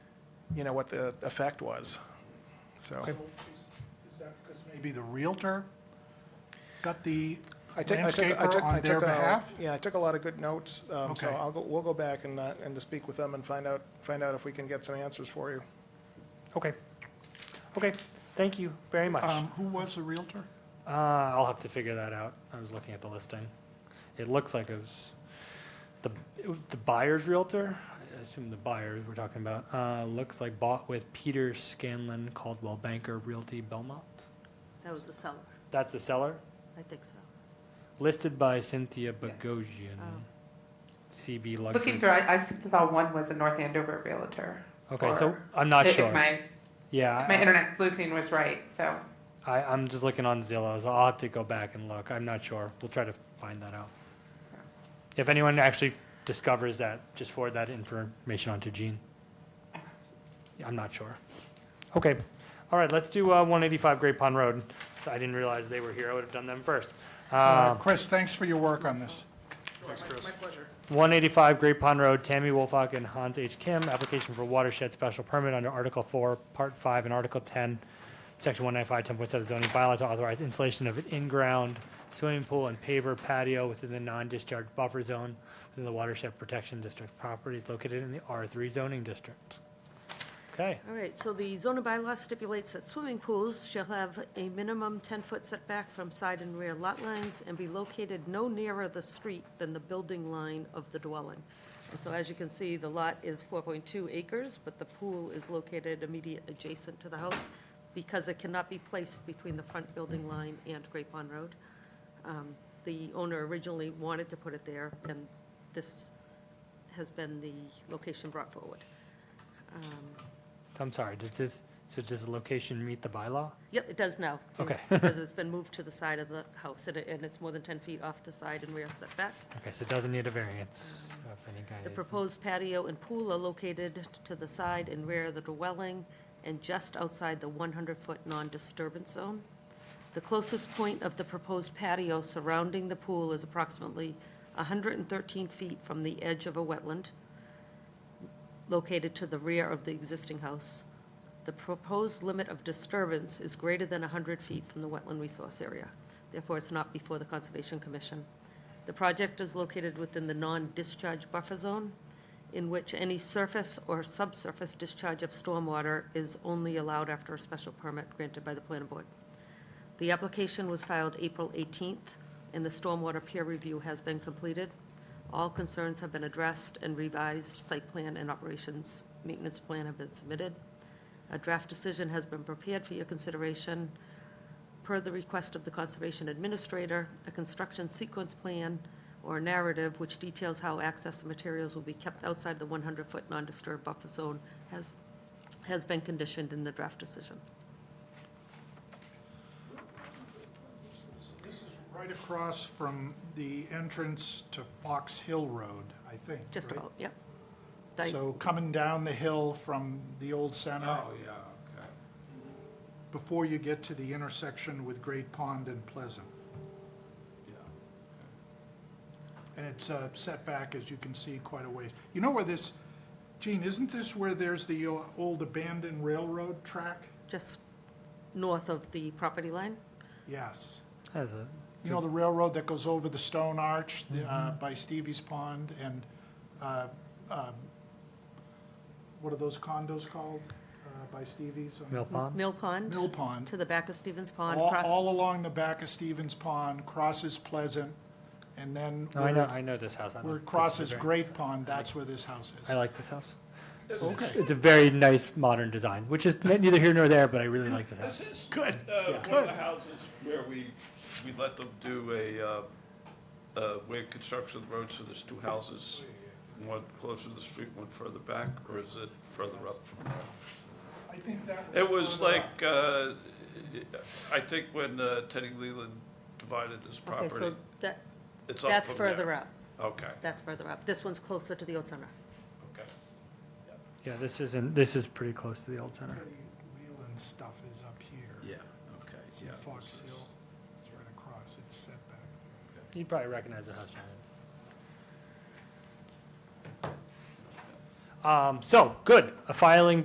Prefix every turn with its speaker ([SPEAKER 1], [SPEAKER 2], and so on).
[SPEAKER 1] you know, what the effect was, so.
[SPEAKER 2] Is that because maybe the Realtor got the
[SPEAKER 1] I took, I took, I took,
[SPEAKER 2] landscaper
[SPEAKER 1] I
[SPEAKER 2] on their
[SPEAKER 1] took, a-
[SPEAKER 2] behalf?
[SPEAKER 1] yeah, I took a lot of good notes, um, so
[SPEAKER 2] Okay.
[SPEAKER 1] I'll go, we'll go back and, uh, and to speak with them and find out, find out if we can get some answers for you.
[SPEAKER 3] Okay. Okay, thank you very much. Uh,
[SPEAKER 2] Um, Who was the Realtor?
[SPEAKER 3] I'll have to figure that out. I was looking at the listing. It looks like it was the, it was the buyer's realtor, I assume the buyers we're talking about, uh, looks like bought with Peter Scanlon Caldwell Banker Realty Belmont.
[SPEAKER 4] That was the seller,
[SPEAKER 3] That's the seller,
[SPEAKER 4] I think so.
[SPEAKER 3] listed by Cynthia Bogosian,
[SPEAKER 4] Oh.
[SPEAKER 3] CB
[SPEAKER 5] Looking
[SPEAKER 3] Luxury.
[SPEAKER 5] through, I, I thought one was a North Andover Realtor.
[SPEAKER 3] Okay, so
[SPEAKER 5] or-
[SPEAKER 3] I'm not
[SPEAKER 5] if
[SPEAKER 3] sure. Uh,
[SPEAKER 5] My,
[SPEAKER 3] Yeah. I-
[SPEAKER 5] my internet sleuthing was right, so.
[SPEAKER 3] I, I'm just looking on Zillow, so I'll have to go back and look. I'm not sure. We'll try to find that out. If anyone actually discovers that, just forward that information on to Gene. Yeah, I'm not sure. Okay, all right, let's do uh, 185 Great Pond Road. I didn't realize they were here. I would have done them first.
[SPEAKER 2] Uh,
[SPEAKER 3] Uh,
[SPEAKER 2] Chris, thanks for your work on this.
[SPEAKER 3] 185 Great Pond Road, Tammy Wolfock and Hans H. Kim, application for watershed special permit under Article 4, Part 5, and Article 10, Section 195, 10.7 zoning bylaw to authorize installation of an in-ground swimming pool and paver patio within the non-discharge buffer zone within the watershed protection district properties located in the R3 zoning district. Okay,
[SPEAKER 4] All right, so the zoning bylaw stipulates that swimming pools shall have a minimum ten-foot setback from side and rear lot lines and be located no nearer the street than the building line of the dwelling. And so as you can see, the lot is four point two acres, but the pool is located immediate adjacent to the house because it cannot be placed between the front building line and Great Pond Road. Um, The owner originally wanted to put it there, and this has been the location brought forward.
[SPEAKER 3] so I'm sorry, does this, so does the location meet the bylaw?
[SPEAKER 4] Yep, it does now.
[SPEAKER 3] Okay.
[SPEAKER 4] Because it's been moved to the side of the house, and it, and it's more than ten feet off the side and rear setback.
[SPEAKER 3] Okay, so it doesn't need a variance of any kind.
[SPEAKER 4] The proposed patio and pool are located to the side and rear of the dwelling and just outside the one hundred-foot non-disturbance zone. The closest point of the proposed patio surrounding the pool is approximately hundred and thirteen feet from the edge of a wetland located to the rear of the existing house. The proposed limit of disturbance is greater than 100 feet from the wetland resource area. Therefore, it's not before the Conservation Commission. The project is located within the non-discharge buffer zone, in which any surface or subsurface discharge of stormwater is only allowed after a special permit granted by the planning board. The application was filed April 18th, and the stormwater peer review has been completed. All concerns have been addressed, and revised site plan and operations maintenance plan have been submitted. A draft decision has been prepared for your consideration. Per the request of the Conservation Administrator, a construction sequence plan or narrative which details how access and materials will be kept outside the 100-foot non-disturbed buffer zone has, has been conditioned in the draft decision.
[SPEAKER 2] This is right across from the entrance to Fox Hill Road, I think.
[SPEAKER 4] Just
[SPEAKER 2] right?
[SPEAKER 4] about, yep. Di-
[SPEAKER 2] So coming down the hill from the old center,
[SPEAKER 6] Oh, yeah, okay.
[SPEAKER 2] before you get to the intersection with Great Pond and Pleasant.
[SPEAKER 6] Yeah.
[SPEAKER 2] And it's uh, set back, as you can see, quite a ways. You know where this, Gene, isn't this where there's the uh, old abandoned railroad track?
[SPEAKER 4] Just north of the property line?
[SPEAKER 2] Yes.
[SPEAKER 3] Has a,
[SPEAKER 2] You know the railroad that goes over the stone arch the, uh,
[SPEAKER 3] Mm-hmm.
[SPEAKER 2] by Stevie's Pond and, uh, um, what are those condos called uh, by Stevie's?
[SPEAKER 3] Mill Pond?
[SPEAKER 4] Mill Pond,
[SPEAKER 2] Mill Pond.
[SPEAKER 4] to the back of Stevens Pond.
[SPEAKER 2] All,
[SPEAKER 4] cross-
[SPEAKER 2] all along the back of Stevens Pond, crosses Pleasant, and then
[SPEAKER 3] No, I know,
[SPEAKER 2] where
[SPEAKER 3] I know this house. I know
[SPEAKER 2] where
[SPEAKER 3] this
[SPEAKER 2] it
[SPEAKER 3] is a
[SPEAKER 2] crosses
[SPEAKER 3] very-
[SPEAKER 2] Great Pond, that's where this house
[SPEAKER 3] I
[SPEAKER 2] is.
[SPEAKER 3] like this house. Oh,
[SPEAKER 2] Okay.
[SPEAKER 3] It's a very nice modern design, which is neither here nor there, but I really like this house.
[SPEAKER 6] This is,
[SPEAKER 2] Good,
[SPEAKER 6] uh, one
[SPEAKER 2] good.
[SPEAKER 6] of the houses where we, we let them do a, uh, uh, wave construction of the road, so there's two houses. One closer to the street, one further back, or is it further up?
[SPEAKER 2] I think that
[SPEAKER 6] It was
[SPEAKER 2] further up.
[SPEAKER 6] like, uh, I think when uh, Teddy Leland divided his
[SPEAKER 4] Okay, so
[SPEAKER 6] property,
[SPEAKER 4] that,
[SPEAKER 6] it's up
[SPEAKER 4] that's
[SPEAKER 6] from
[SPEAKER 4] further
[SPEAKER 6] there.
[SPEAKER 4] up,
[SPEAKER 6] Okay,
[SPEAKER 4] that's further up. This one's closer to the old center.
[SPEAKER 6] okay.
[SPEAKER 3] Yeah, this isn't, this is pretty close to the old center.
[SPEAKER 2] Leland stuff is up here.
[SPEAKER 6] Yeah, okay,
[SPEAKER 2] It's in
[SPEAKER 6] yeah.
[SPEAKER 2] Fox
[SPEAKER 6] this is-
[SPEAKER 2] Hill, it's right across, it's set back.
[SPEAKER 3] You'd probably recognize the house. John. Um, so, good, a filing